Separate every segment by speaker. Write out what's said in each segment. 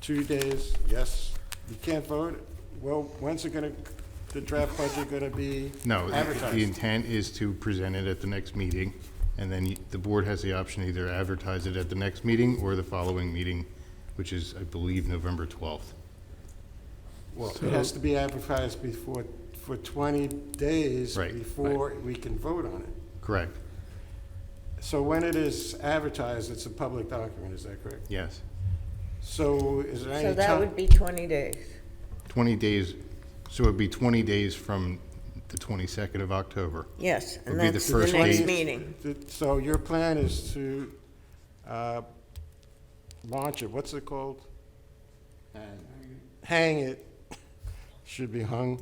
Speaker 1: two days, yes, you can't vote, well, when's it gonna, the draft budget gonna be
Speaker 2: No, the- the
Speaker 1: advertised?
Speaker 2: intent is to present it at the next meeting, and then you- the board has the option to either advertise it at the next meeting or the following meeting, which is, I believe, November 12th.
Speaker 1: Well, it has to be advertised before, for twenty days
Speaker 2: Right, right.
Speaker 1: before we can vote on it.
Speaker 2: Correct?
Speaker 1: So when it is advertised, it's a public document, is that correct?
Speaker 2: Yes.
Speaker 1: So is there any
Speaker 3: So
Speaker 1: time?
Speaker 3: that would be 20 days.
Speaker 2: 20 days, so it'd be 20 days from the 22nd of October.
Speaker 3: Yes,
Speaker 2: Would
Speaker 3: and
Speaker 2: be the
Speaker 3: that's the
Speaker 2: first
Speaker 3: next
Speaker 2: date.
Speaker 3: meeting.
Speaker 1: Th- So your plan is to uh, launch it, what's it called? Hang it, should be hung,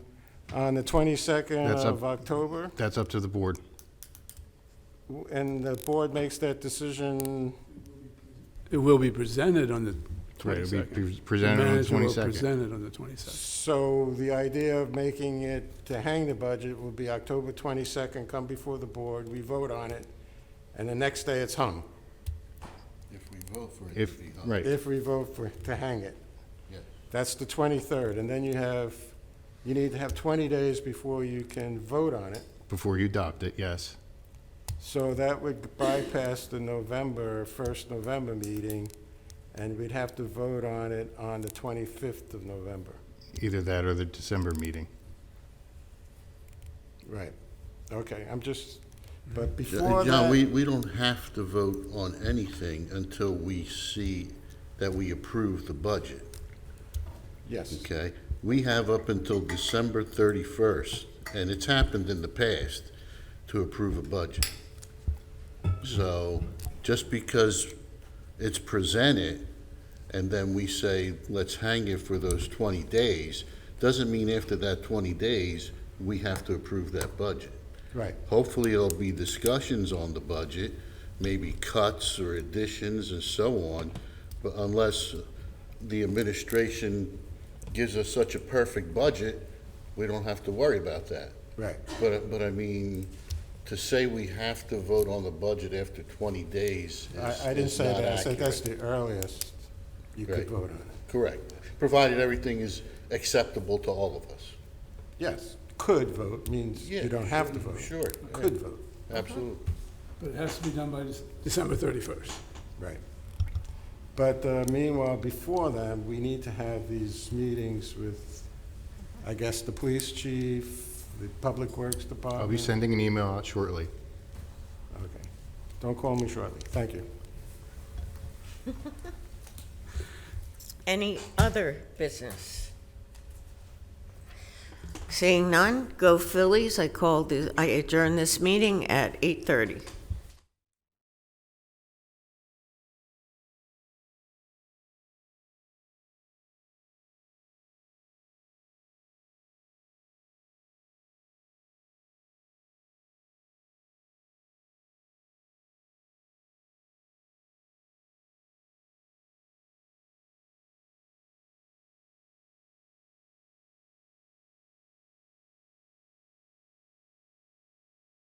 Speaker 1: on the 22nd
Speaker 2: That's up-
Speaker 1: of October,
Speaker 2: That's up to the board.
Speaker 1: w- and the board makes that decision,
Speaker 4: It will be presented on the
Speaker 2: Right, it'll be
Speaker 4: 22nd.
Speaker 2: pre- presented on the
Speaker 4: Manager will
Speaker 2: 22nd.
Speaker 4: present it on the 22nd.
Speaker 1: so the idea of making it, to hang the budget would be October 22nd, come before the board, we vote on it, and the next day it's hung,
Speaker 5: If we vote for it,
Speaker 2: If,
Speaker 5: it'd be up.
Speaker 2: right,
Speaker 1: if we vote for, to hang it.
Speaker 5: Yeah.
Speaker 1: That's the 23rd, and then you have, you need to have 20 days before you can vote on it.
Speaker 2: before you adopt it, yes.
Speaker 1: So that would bypass the November, 1st November meeting, and we'd have to vote on it on the 25th of November.
Speaker 2: Either that or the December meeting.
Speaker 1: Right. Okay, I'm just, but before
Speaker 5: Mm-hmm. John, John, we,
Speaker 1: that,
Speaker 5: we don't have to vote on anything until we see that we approve the budget,
Speaker 1: yes,
Speaker 5: okay? We have up until December thirty-first, and it's happened in the past, to approve a budget. So, just because it's presented, and then we say, let's hang it for those twenty days, doesn't mean after that twenty days, we have to approve that budget.
Speaker 1: right.
Speaker 5: Hopefully, there'll be discussions on the budget, maybe cuts or additions and so on, but unless the administration gives us such a perfect budget, we don't have to worry about that.
Speaker 1: Right.
Speaker 5: But, but I mean, to say we have to vote on the budget after 20 days is
Speaker 1: I, I didn't
Speaker 5: is
Speaker 1: say
Speaker 5: not
Speaker 1: that, I said that's
Speaker 5: accurate.
Speaker 1: the earliest you could
Speaker 5: Right.
Speaker 1: vote on it.
Speaker 5: Correct, provided everything is acceptable to all of us.
Speaker 1: Yes, could vote means
Speaker 5: Yeah,
Speaker 1: you don't have to vote.
Speaker 5: sure, yeah.
Speaker 1: Could vote,
Speaker 5: Absolutely.
Speaker 4: But it has to be done by Dec- December 31st.
Speaker 1: right. But uh, meanwhile, before that, we need to have these meetings with, I guess, the police chief, the public works department.
Speaker 2: I'll be sending an email out shortly.
Speaker 1: Okay. Don't call me shortly. Thank you.
Speaker 3: Any other business? Seeing none, go Phillies. I called, the- I adjourn this meeting at 8:30.